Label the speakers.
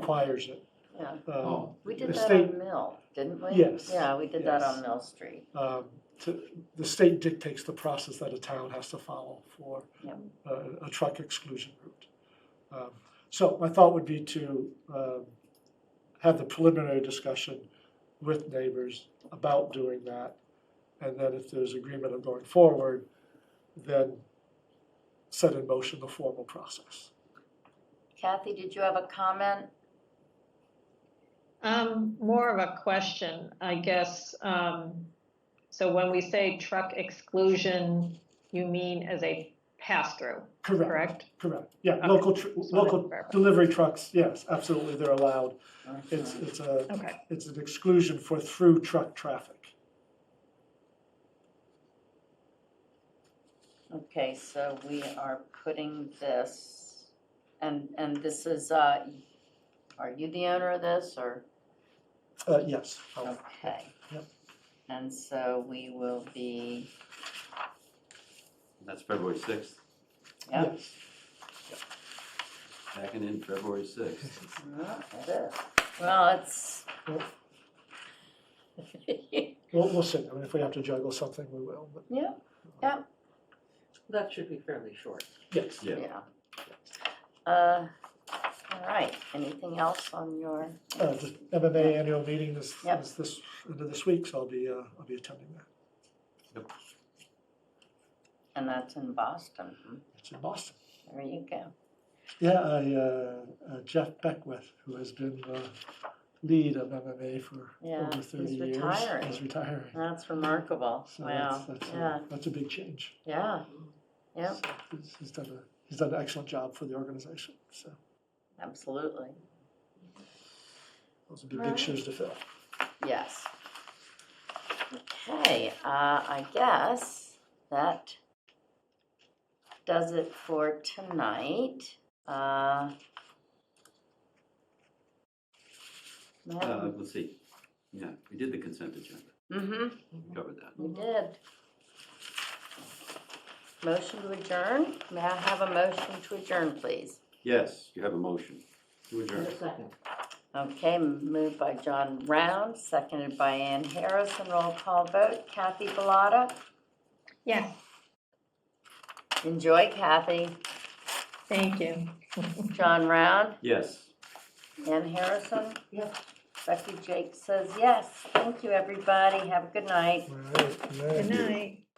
Speaker 1: requires it.
Speaker 2: Yeah,
Speaker 1: Um,
Speaker 3: Oh,
Speaker 2: we
Speaker 1: The
Speaker 2: did that
Speaker 1: state-
Speaker 2: on Mill, didn't we?
Speaker 1: Yes,
Speaker 2: Yeah, we did that
Speaker 3: yes.
Speaker 2: on Mill Street.
Speaker 1: um, to- The state dictates the process that a town has to follow for
Speaker 2: Yep.
Speaker 1: uh, a truck exclusion route. Um, So my thought would be to um, have the preliminary discussion with neighbors about doing that. And then if there's agreement of going forward, then set in motion the formal process.
Speaker 2: Kathy, did you have a comment?
Speaker 4: Um, more of a question, I guess. Um, so when we say truck exclusion, you mean as a pass-through,
Speaker 1: Correct,
Speaker 4: correct?
Speaker 1: correct. Yeah,
Speaker 4: Okay.
Speaker 1: local, tr-
Speaker 4: So I
Speaker 1: local
Speaker 4: didn't verify.
Speaker 1: delivery trucks, yes, absolutely, they're allowed. It's, it's a,
Speaker 4: Okay,
Speaker 1: it's an exclusion for through truck traffic.
Speaker 2: Okay, so we are putting this, and, and this is, uh, are you the owner of this, or?
Speaker 1: Uh, yes.
Speaker 2: Oh, Okay.
Speaker 1: Yep.
Speaker 2: And so we will be,
Speaker 3: that's February sixth,
Speaker 2: yep,
Speaker 1: Yes.
Speaker 3: backing in February sixth.
Speaker 2: Yeah, it is. Well, it's.
Speaker 1: We'll, we'll see. I mean, if we have to juggle something, we will, but
Speaker 2: Yeah,
Speaker 5: That should be fairly short.
Speaker 1: yes.
Speaker 3: Yeah.
Speaker 2: yeah. Uh, all right, anything else on your?
Speaker 1: Uh, just MMA annual meeting is,
Speaker 2: Yep.
Speaker 1: is this, end of this week, so I'll be, uh, I'll be attending that.
Speaker 2: And that's in Boston. hmm.
Speaker 1: It's in Boston.
Speaker 2: There you go.
Speaker 1: Yeah, I, uh, uh, Jeff Beckwith, who has been, uh, lead of MMA for
Speaker 2: Yeah,
Speaker 1: over
Speaker 2: he's
Speaker 1: thirty years.
Speaker 2: retiring.
Speaker 1: Is retiring.
Speaker 2: That's remarkable.
Speaker 1: So that's,
Speaker 2: Wow.
Speaker 1: that's,
Speaker 2: Yeah,
Speaker 1: a- that's a big change.
Speaker 2: yeah, yeah,
Speaker 1: So he's- He's done a, he's done an excellent job for the organization, so
Speaker 2: absolutely.
Speaker 1: those would be big
Speaker 2: Right.
Speaker 1: shoes to fill.
Speaker 2: Yes. Okay, uh, I guess that does it for tonight. Uh,
Speaker 3: Uh, let's see, yeah, we did the consent agenda,
Speaker 2: Mm-hmm,
Speaker 3: We covered that.
Speaker 2: we did. Motion to adjourn? May I have a motion to adjourn, please?
Speaker 3: Yes, you have a motion to adjourn.
Speaker 2: Okay, moved by John Round, seconded by Ann Harrison. Roll call vote. Kathy Bellata?
Speaker 4: yes,
Speaker 2: Enjoy, Kathy.
Speaker 4: thank you.
Speaker 2: John Round?
Speaker 3: Yes.
Speaker 2: Ann Harrison?
Speaker 1: Yes.
Speaker 2: Becky Jake says yes. Thank you, everybody. Have a good night.
Speaker 1: All right, good night.
Speaker 4: Good night.